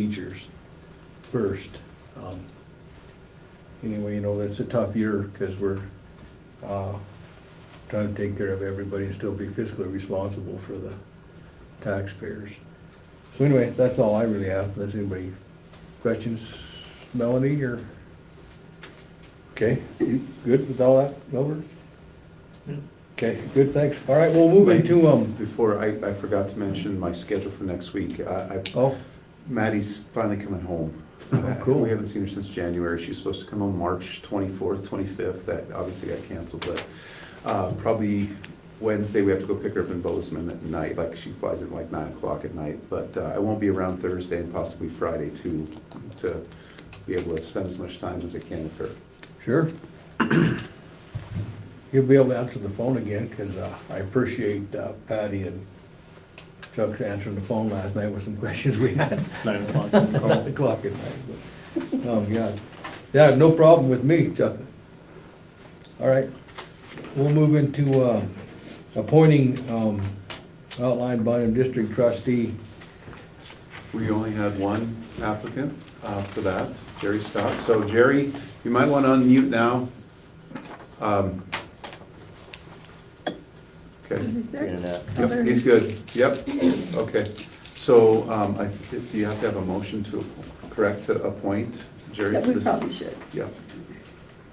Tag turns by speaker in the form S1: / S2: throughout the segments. S1: teachers first. Um, Anyway, you know, it's a tough year because we're uh, trying to take care of everybody and still be fiscally responsible for the taxpayers. So anyway, that's all I really have. Does anybody, questions, Melanie, or? Okay, you good with all that, Melvin? Okay, good, thanks. All right, we'll move into, um,
S2: Before, I, I forgot to mention my schedule for next week. Uh, I, I,
S1: oh,
S2: Maddie's finally coming home. Uh,
S1: Oh, cool.
S2: We haven't seen her since January. She's supposed to come home March twenty-fourth, twenty-fifth. That obviously got canceled, but, uh, probably Wednesday, we have to go pick her up in Bozeman at night. Like, she flies in like nine o'clock at night, but, uh, I won't be around Thursday and possibly Friday to, to be able to spend as much time as I can with her.
S1: Sure. You'll be able to answer the phone again, because I appreciate uh, Patty and Chuck's answering the phone last night with some questions we had.
S3: Nine o'clock.
S1: Nine o'clock at night. but- Oh, God. Yeah, no problem with me, Chuck. All right, we'll move into uh, appointing um, outline Bynum District trustee.
S2: We only had one applicant uh, for that, Jerry Stott. So Jerry, you might want to unmute now. Um, Okay,
S4: Is there
S3: Internet.
S2: Yep, he's good, yep, okay. So um, I, if you have to have a motion to, correct, to appoint Jerry?
S4: That
S2: to
S4: we
S2: this-
S4: probably should.
S2: Yeah,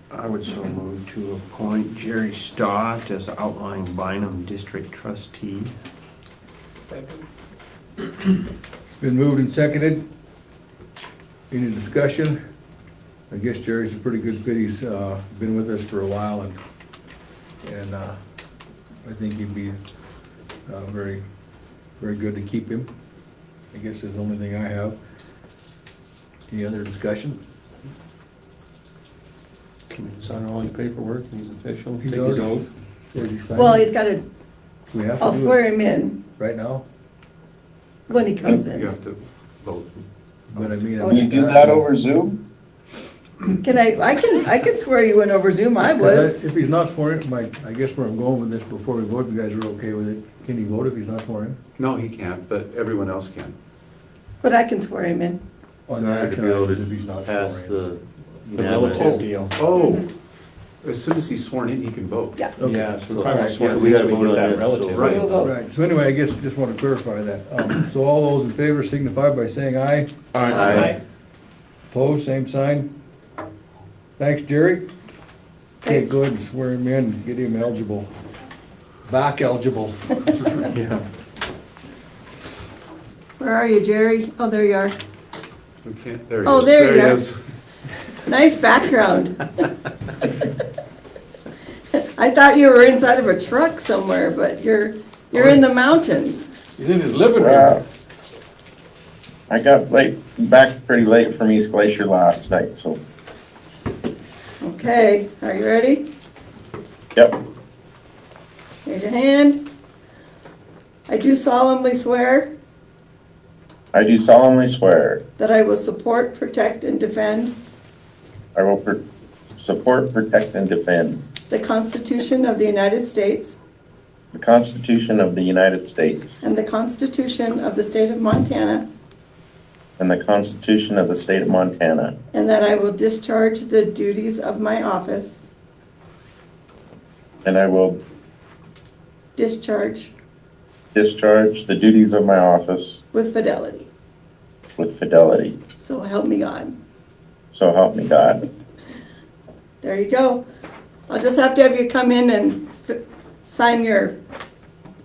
S5: I would so move to appoint Jerry Stott as outlying Bynum District trustee.
S1: It's been moved and seconded. Any discussion? I guess Jerry's a pretty good fit. He's uh, been with us for a while and, and uh, I think he'd be uh, very, very good to keep him. I guess is the only thing I have. Any other discussion?
S5: Can we sign all his paperwork, he's official?
S1: He's
S5: Take his
S1: already-
S5: oath?
S1: Or is he signing?
S4: Well, he's got to,
S1: Do we have
S4: I'll
S1: to do
S4: swear
S1: it
S4: him in
S1: right now?
S4: when he comes
S2: you
S4: in.
S2: have to vote.
S1: But I mean. I'm
S4: Will you
S6: do
S1: not-
S6: that over Zoom?
S4: Can I, I can, I can swear you in over Zoom, I was.
S1: If he's not sworn, in, my, I guess where I'm going with this before we vote, if you guys are okay with it, can he vote if he's not sworn in?
S2: No, he can't, but everyone else can.
S4: But I can swear him in.
S1: On the
S3: Not
S1: action
S3: to be able
S1: items
S3: to
S1: if he's not
S3: Pass
S1: sworn in.
S3: the
S5: The relative
S3: unanimous.
S5: deal.
S2: Oh, as soon as he's sworn in, he can vote.
S4: Yeah.
S1: Okay.
S5: Yeah, so
S3: Oh, So-
S5: probably
S3: so
S5: swear
S3: we gotta
S5: we
S3: vote
S5: get
S3: on
S5: that
S3: this, so-
S5: relative.
S4: So we'll
S2: Right.
S4: vote.
S1: Right, so anyway, I guess, just want to clarify that. Um, So all those in favor signify by saying aye.
S3: Aye.
S1: Opposed, same sign. Thanks, Jerry. Okay, go ahead and swear him in, get him eligible, back eligible.
S5: Yeah.
S4: Where are you, Jerry? Oh, there you are.
S2: We can't, there he
S4: Oh,
S2: is.
S4: there you
S2: he
S4: are.
S2: is.
S4: Nice background. I thought you were inside of a truck somewhere, but you're, you're in the mountains.
S1: He's in his living
S6: Wow.
S1: room.
S6: I got late, back pretty late from East Glacier last night, so,
S4: Okay, are you ready?
S6: yep.
S4: Raise your hand. I do solemnly swear
S6: I do solemnly swear,
S4: that I will support, protect, and defend
S6: I will pr- support, protect, and defend
S4: the Constitution of the United States
S6: the Constitution of the United States
S4: And the Constitution of the State of Montana.
S6: and the Constitution of the State of Montana,
S4: And that I will discharge the duties of my office.
S6: and I will
S4: Discharge
S6: discharge the duties of my office
S4: with fidelity.
S6: with fidelity.
S4: So help me God.
S6: So help me God.
S4: There you go. I'll just have to have you come in and f- sign your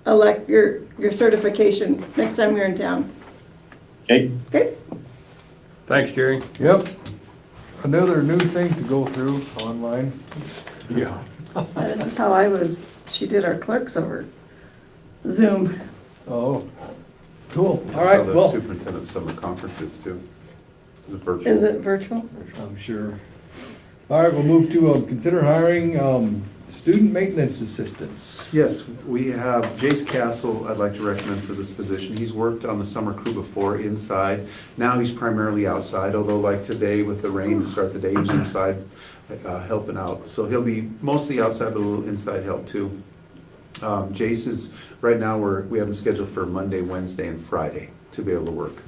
S4: elect, your, your certification next time you're in town.
S6: Okay?
S4: Okay?
S5: Thanks, Jerry.
S1: Yep. Another new thing to go through online.
S5: Yeah.
S4: This is how I was, she did our clerks over Zoom.
S1: Oh, cool. All
S2: That's how
S1: right,
S2: the
S1: well,
S2: Superintendent summer conferences too. It's virtual.
S4: Is it virtual?
S1: I'm sure. All right, we'll move to, um, consider hiring um, student maintenance assistants.
S2: Yes, we have Jace Castle, I'd like to recommend for this position. He's worked on the summer crew before inside. Now he's primarily outside, although like today with the rain to start the day, he's inside uh, helping out. So he'll be mostly outside, but a little inside help too. Um, Jace is, right now, we're, we have him scheduled for Monday, Wednesday, and Friday to be able to work.